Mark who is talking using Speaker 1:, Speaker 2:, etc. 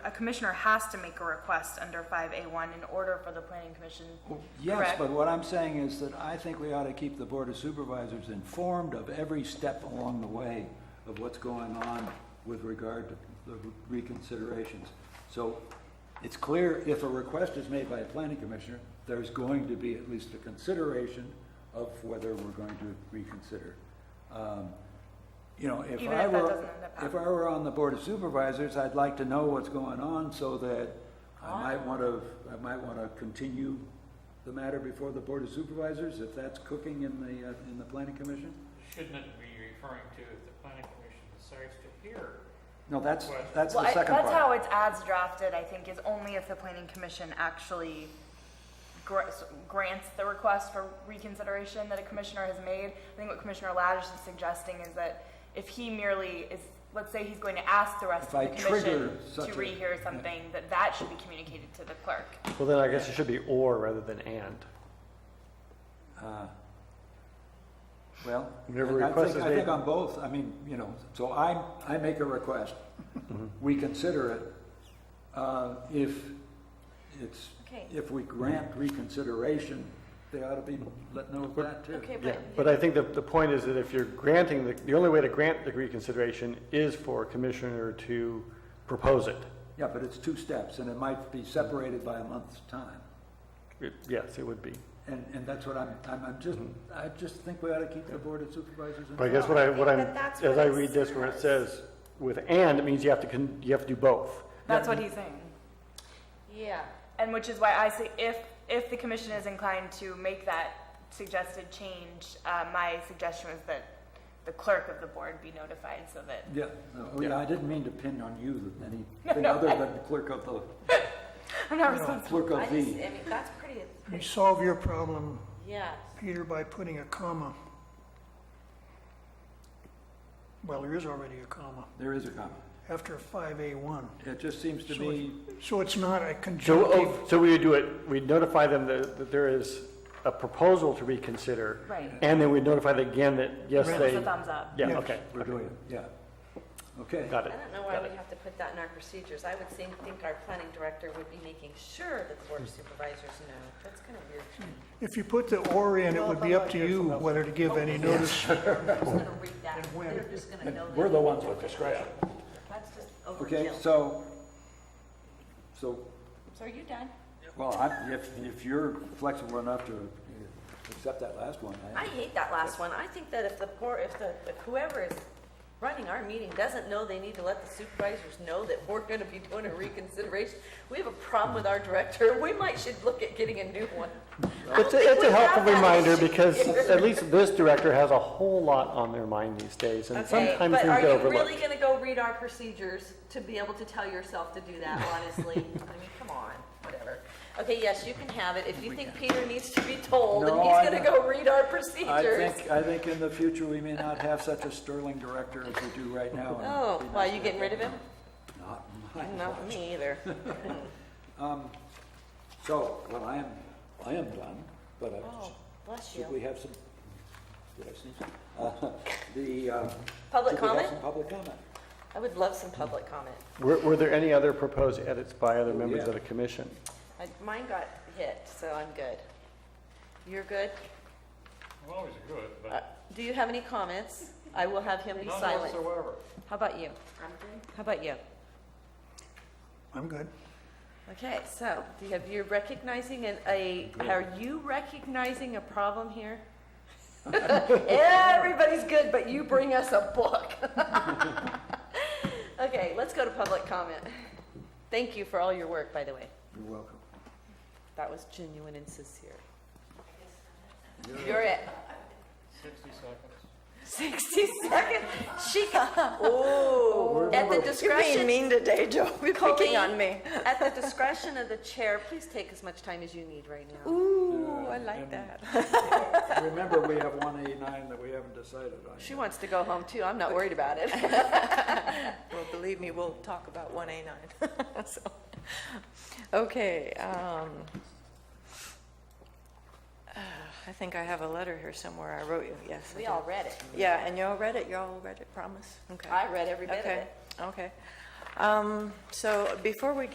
Speaker 1: commissioner has to make a request under five A one in order for the planning commission.
Speaker 2: Yes,
Speaker 1: Correct.
Speaker 2: but what I'm saying is that I think we ought to keep the Board of Supervisors informed of every step along the way of what's going on with regard to the reconsiderations. So it's clear if a request is made by a planning commissioner, there's going to be at least a consideration of whether we're going to reconsider. Um, You know, if
Speaker 1: Even
Speaker 2: I
Speaker 1: if that
Speaker 2: were,
Speaker 1: doesn't end up
Speaker 2: if I were on the Board of Supervisors, I'd like to know what's going on so that I might
Speaker 1: Ah.
Speaker 2: want to, I might want to continue the matter before the Board of Supervisors, if that's cooking in the, uh, in the Planning Commission?
Speaker 3: Shouldn't it be referring to if the planning commission decides to hear?
Speaker 2: No, that's,
Speaker 3: Well,
Speaker 2: that's
Speaker 1: Well,
Speaker 2: the
Speaker 1: I-
Speaker 2: second
Speaker 1: that's how
Speaker 2: part.
Speaker 1: it's as drafted, I think, is only if the planning commission actually gr- grants the request for reconsideration that a commissioner has made. I think what Commissioner Ladish is suggesting is that if he merely is, let's say he's going to ask the rest
Speaker 2: If
Speaker 1: of
Speaker 2: I
Speaker 1: the
Speaker 2: trigger
Speaker 1: commission
Speaker 2: such
Speaker 1: to
Speaker 2: a-
Speaker 1: rehear something, that that should be communicated to the clerk.
Speaker 4: Well, then I guess it should be or rather than and.
Speaker 2: Uh, Well,
Speaker 4: Whenever
Speaker 2: I- I
Speaker 4: request
Speaker 2: think,
Speaker 4: is
Speaker 2: I think
Speaker 4: made-
Speaker 2: on both, I mean, you know, so I, I make a request, we consider it. Uh, If it's,
Speaker 1: Okay.
Speaker 2: if we grant reconsideration, they ought to be let know of that too.
Speaker 4: Yeah, but I think the, the point is that if you're granting, the, the only way to grant the reconsideration is for a commissioner to propose it.
Speaker 2: Yeah, but it's two steps, and it might be separated by a month's time.
Speaker 4: It- Yes, it would be.
Speaker 2: And, and that's what I'm, I'm, I'm just, I just think we ought to keep the Board of Supervisors
Speaker 4: But I
Speaker 2: informed.
Speaker 4: guess what I, what
Speaker 5: I
Speaker 4: I'm,
Speaker 5: think that that's
Speaker 4: as
Speaker 5: what
Speaker 4: I
Speaker 5: it
Speaker 4: read this where it
Speaker 5: says.
Speaker 4: says with and, it means you have to, con- you have to do both.
Speaker 1: That's what he's saying.
Speaker 5: Yeah.
Speaker 1: And which is why I say, if, if the commission is inclined to make that suggested change, uh, my suggestion was that the clerk of the board be notified so that
Speaker 2: Yeah, no, oh, yeah, I didn't mean to pin on you anything
Speaker 1: no,
Speaker 2: other
Speaker 1: I-
Speaker 2: than clerk of the,
Speaker 1: I'm not responsible.
Speaker 2: clerk
Speaker 5: I
Speaker 2: of
Speaker 5: just, I
Speaker 2: the.
Speaker 5: mean, that's pretty,
Speaker 6: You solve your problem,
Speaker 5: yes.
Speaker 6: Peter, by putting a comma. Well, there is already a comma
Speaker 2: There is a comment.
Speaker 6: after 5A1.
Speaker 2: It just seems to
Speaker 6: So
Speaker 2: me,
Speaker 6: So it's not a
Speaker 4: So,
Speaker 6: conjunctive.
Speaker 4: oh, so we would do it, we'd notify them that, that there is a proposal to reconsider.
Speaker 1: Right.
Speaker 4: And then we'd notify them again that, yes,
Speaker 6: Right.
Speaker 4: they,
Speaker 1: It's a thumbs up.
Speaker 4: yeah,
Speaker 6: Yes.
Speaker 4: okay,
Speaker 2: we're doing it, yeah. Okay.
Speaker 4: got
Speaker 5: I
Speaker 4: it.
Speaker 5: don't know why we have to put that in our procedures. I would think, think our planning director would be making sure that the board of supervisors know. That's kind of weird to me.
Speaker 6: If you put the or in, it would be up to you whether to give any notice.
Speaker 5: They're just gonna read that.
Speaker 6: And when.
Speaker 5: They're just gonna know
Speaker 2: We're
Speaker 5: that.
Speaker 2: the ones with discretion.
Speaker 5: That's just
Speaker 2: Okay,
Speaker 5: overkill.
Speaker 2: so, so,
Speaker 5: So are you done?
Speaker 2: well, I, if, if you're flexible enough to accept that last one,
Speaker 5: I
Speaker 2: I,
Speaker 5: hate that last one. I think that if the poor, if the, if whoever is running our meeting doesn't know they need to let the supervisors know that we're gonna be doing a reconsideration, we have a problem with our director. We might should look at getting a new one.
Speaker 4: It's a, it's
Speaker 5: We
Speaker 4: a
Speaker 5: have
Speaker 4: helpful
Speaker 5: that
Speaker 4: reminder
Speaker 5: issue
Speaker 4: because
Speaker 5: here.
Speaker 4: at least this director has a whole lot on their mind these days and
Speaker 5: Okay,
Speaker 4: sometimes
Speaker 5: but
Speaker 4: things
Speaker 5: are
Speaker 4: get
Speaker 5: you
Speaker 4: overlooked.
Speaker 5: really gonna go read our procedures to be able to tell yourself to do that, honestly? I mean, come on, whatever. Okay, yes, you can have it. If you think Peter needs to be told and
Speaker 2: No,
Speaker 5: he's
Speaker 2: I
Speaker 5: gonna
Speaker 2: don't.
Speaker 5: go read
Speaker 2: I
Speaker 5: our procedures.
Speaker 2: think, I think in the future, we may not have such a sterling director as we do right now. and
Speaker 5: Oh,
Speaker 2: it'd be
Speaker 5: why,
Speaker 2: nice
Speaker 5: you
Speaker 2: to
Speaker 5: getting
Speaker 2: have
Speaker 5: rid of him?
Speaker 2: Not mine.
Speaker 5: Not me either.
Speaker 2: So, well, I am, I am done, but
Speaker 5: Oh,
Speaker 2: I,
Speaker 5: bless
Speaker 2: should we
Speaker 5: you.
Speaker 2: have some, did I sneeze? Uh, The, uh,
Speaker 5: Public
Speaker 2: should we have
Speaker 5: comment?
Speaker 2: some public comment?
Speaker 5: I would love some public comment.
Speaker 4: Were, were there any other proposed edits by other members
Speaker 2: yeah.
Speaker 4: of the commission?
Speaker 5: I- Mine got hit, so I'm good. You're good?
Speaker 3: I'm always good,
Speaker 5: Uh,
Speaker 3: but
Speaker 5: Do you have any comments? I will have him be
Speaker 3: none
Speaker 5: silent.
Speaker 3: whatsoever.
Speaker 5: How about you? How about you?
Speaker 6: I'm good.
Speaker 5: Okay, so do you have, you're recognizing an, a, are you recognizing a problem here? Everybody's good, but you bring us a book. Okay, let's go to public comment. Thank you for all your work, by the way.
Speaker 2: You're welcome.
Speaker 5: That was genuine and sincere. You're at
Speaker 3: 60 seconds.
Speaker 5: 60 seconds. She got, oh, at the discretion.
Speaker 7: mean today, Joe. You're
Speaker 5: Colleen,
Speaker 7: picking on me.
Speaker 5: At the discretion of the chair, please take as much time as you need right now.
Speaker 7: Ooh, I
Speaker 2: and-
Speaker 7: like that.
Speaker 2: Remember, we have one eighty-nine that we haven't decided on.
Speaker 5: She wants to go home too. I'm not worried about it.
Speaker 7: Well, believe me, we'll talk about 1A9. So, Okay. um, uh, I think I have a letter here somewhere. I wrote you, yes. I
Speaker 5: We
Speaker 7: did.
Speaker 5: all read it.
Speaker 7: Yeah, and you all read it? You all read it, promise? Okay.
Speaker 5: I read every bit of
Speaker 7: Okay,
Speaker 5: it.
Speaker 7: okay. Um, So before we